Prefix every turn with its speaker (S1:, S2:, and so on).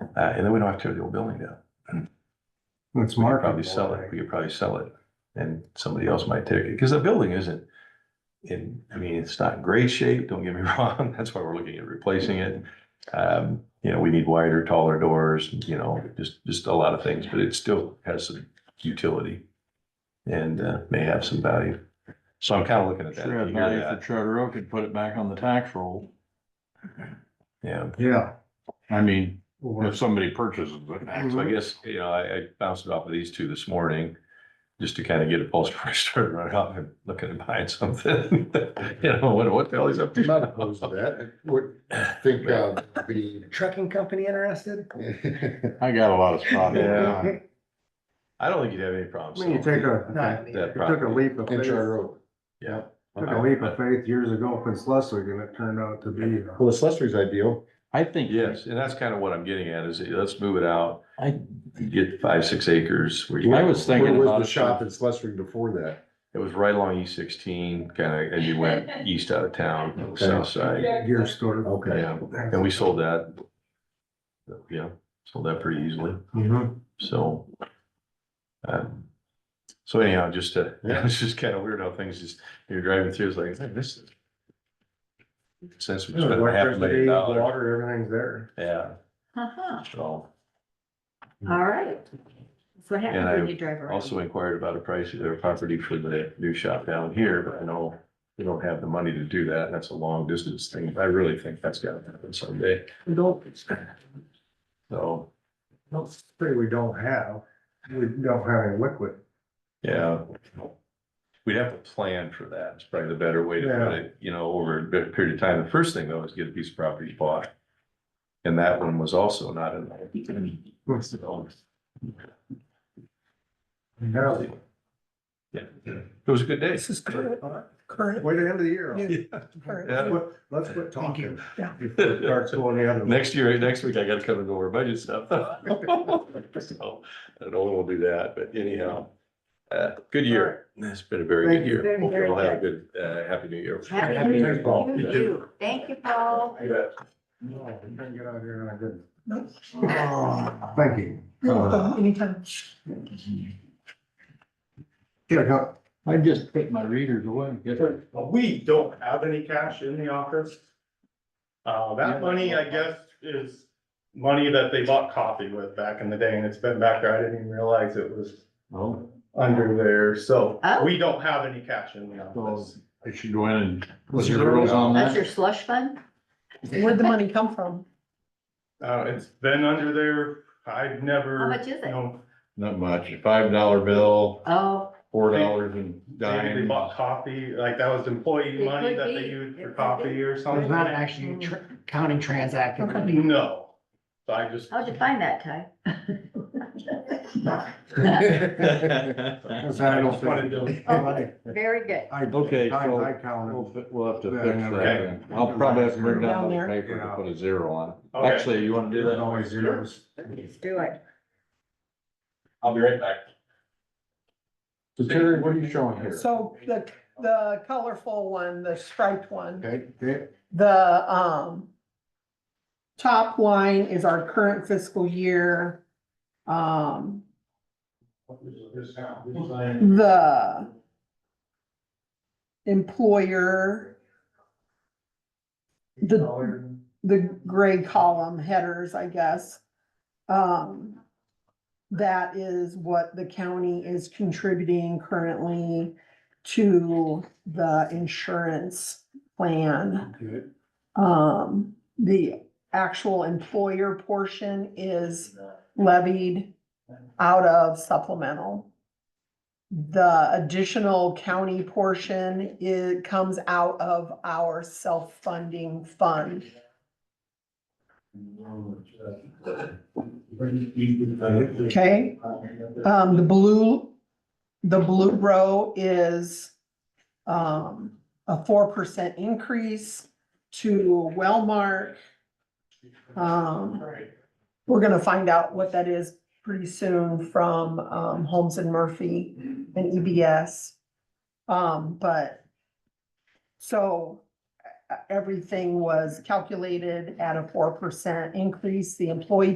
S1: Uh, and then we don't have to tear the old building down.
S2: It's
S1: We could
S2: marketable.
S1: probably sell it, we could probably sell it, and somebody else might take it, because the building isn't in, I mean, it's not in great shape, don't get me wrong, that's why we're looking at replacing it. Um, you know, we need wider, taller doors, you know, just, just a lot of things, but it still has some utility and, uh, may have some value. So I'm kind of looking at that.
S3: Sure,
S1: You
S3: if
S1: hear
S3: not, if the
S1: that?
S3: charter oak could put it back on the tax roll,
S1: Yeah,
S2: Yeah.
S3: I mean,
S2: Or-
S3: if somebody purchases it.
S1: so
S2: Mm-hmm.
S1: I guess, you know, I, I bounced it off of these two this morning, just to kind of get a pulse before I started running off and looking at buying something. You know, what, what the hell is up to?
S4: I'm not opposed to that. I Would think, uh, the.
S5: Trucking company interested?
S3: I got a lot of spots.
S1: Yeah. I don't think you'd have any problems.
S2: I mean, you take a,
S5: Not
S2: you
S5: me.
S1: That
S2: took a
S1: property.
S2: leap of
S4: In
S2: faith,
S4: Charter
S2: took
S4: Oak.
S1: Yeah. Uh-huh. Uh,
S2: a leap of faith years ago up in Schleswig and it turned out to be. uh,
S4: Well, the Schleswig's ideal.
S3: I think.
S1: Yes, and that's kind of what I'm getting at is let's move it out,
S3: I,
S1: get five, six acres. where you-
S3: I was thinking
S4: Where
S3: about
S4: was
S3: it.
S4: the shop in Schleswig before that?
S1: It was right along E sixteen, kind of, and you went east out of town, south side.
S2: Gear store.
S4: Okay.
S1: Yeah, and we sold that. Yeah, sold that pretty easily,
S2: Mhm.
S1: so. um, So anyhow, just, uh, it's just kind of weird how things just, you're driving through, it's like, "Hey, this. is-" Since we spent half a million
S2: Electricity,
S1: dollars,
S2: water, everything's there.
S1: yeah,
S6: Uh-huh,
S1: so.
S6: all right. That's what happens
S1: And I
S6: when you drive around.
S1: Also inquired about a price of their property for the new shop down here, but I know we don't have the money to do that, and that's a long distance thing, I really think that's gotta happen someday.
S2: We don't,
S1: So,
S2: don't say we don't have, we don't have any liquid.
S1: yeah. We'd have to plan for that, it's probably the better way to put it, you know, over a bit period of time, the first thing though is get a piece of property bought. And that one was also not in. So,
S2: Now,
S1: Yeah, it was a good day.
S5: This is current, current.
S2: Way to end of the year.
S1: Yeah.
S5: current.
S2: Let's quit- Let's quit
S5: Thank you.
S2: talking. Before it starts going the other way.
S1: Next year, next week, I gotta come and go over budget stuff. So, I don't know when we'll do that, but anyhow, uh, good year. It's been a very good
S2: Thank you.
S1: year.
S6: Very,
S1: Hope you
S6: very
S1: all have a good, uh, happy new year.
S6: Happy
S2: Happy
S6: New
S2: New
S6: Year
S2: Year, Paul.
S6: to you too. Thank you, Paul.
S1: You bet.
S2: No, we can get out here on a good.
S5: No.
S2: Ah, Thank you.
S5: Uh, Anytime.
S2: Here, go.
S3: I just put my readers away.
S7: We don't have any cash in the office. Uh, that money, I guess, is money that they bought coffee with back in the day, and it's been back there. I didn't even realize it was
S3: Well,
S7: under there, so
S6: Oh.
S7: we don't have any cash in the office.
S3: I should go in and.
S2: What's
S3: What's
S2: your
S3: your rules on
S6: That's your
S3: that?
S6: slush fund?
S5: Where'd the money come from?
S7: Uh, it's been under there, I've never.
S6: How much is it?
S7: No,
S3: Not much. A Five dollar bill,
S6: Oh,
S3: four dollars and
S7: maybe they
S3: dime.
S7: bought coffee, like that was
S6: It
S7: employee money
S6: could
S7: that they
S6: be.
S7: used
S6: It
S7: for
S6: could
S7: coffee
S6: be.
S7: or
S5: There's
S7: something.
S5: not actually tr- counting transacted money.
S7: No, so I just.
S6: how'd you find that, Ty?
S2: Cause I
S7: I
S2: don't
S7: just wanted
S2: think.
S6: to- Very good.
S2: I-
S3: Okay, so-
S2: I counted.
S3: We'll fi- we'll have to
S2: Yeah,
S3: fix
S2: okay.
S3: that. I'll probably have to bring down
S5: Down
S3: another
S5: there.
S3: paper to put a zero on it.
S7: Okay.
S3: Actually, you wanna do
S2: There's
S3: that?
S2: always zeros.
S6: Let's do it.
S7: I'll be right back.
S3: So Terry, what are you showing here?
S5: So the, the colorful one, the striped one,
S2: Okay, okay,
S5: the, um, top line is our current fiscal year. Um, the employer, the, the gray column headers, I guess. Um, that is what the county is contributing currently to the insurance plan.
S2: okay.
S5: Um, the actual employer portion is levied out of supplemental. The additional county portion, it comes out of our self-funding fund. Okay, um, the blue, the blue row is, um, a four percent increase to Wellmark. Um, we're gonna find out what that is pretty soon from, um, Holmes and Murphy and EBS. Um, but, so, e- everything was calculated at a four percent increase, the employee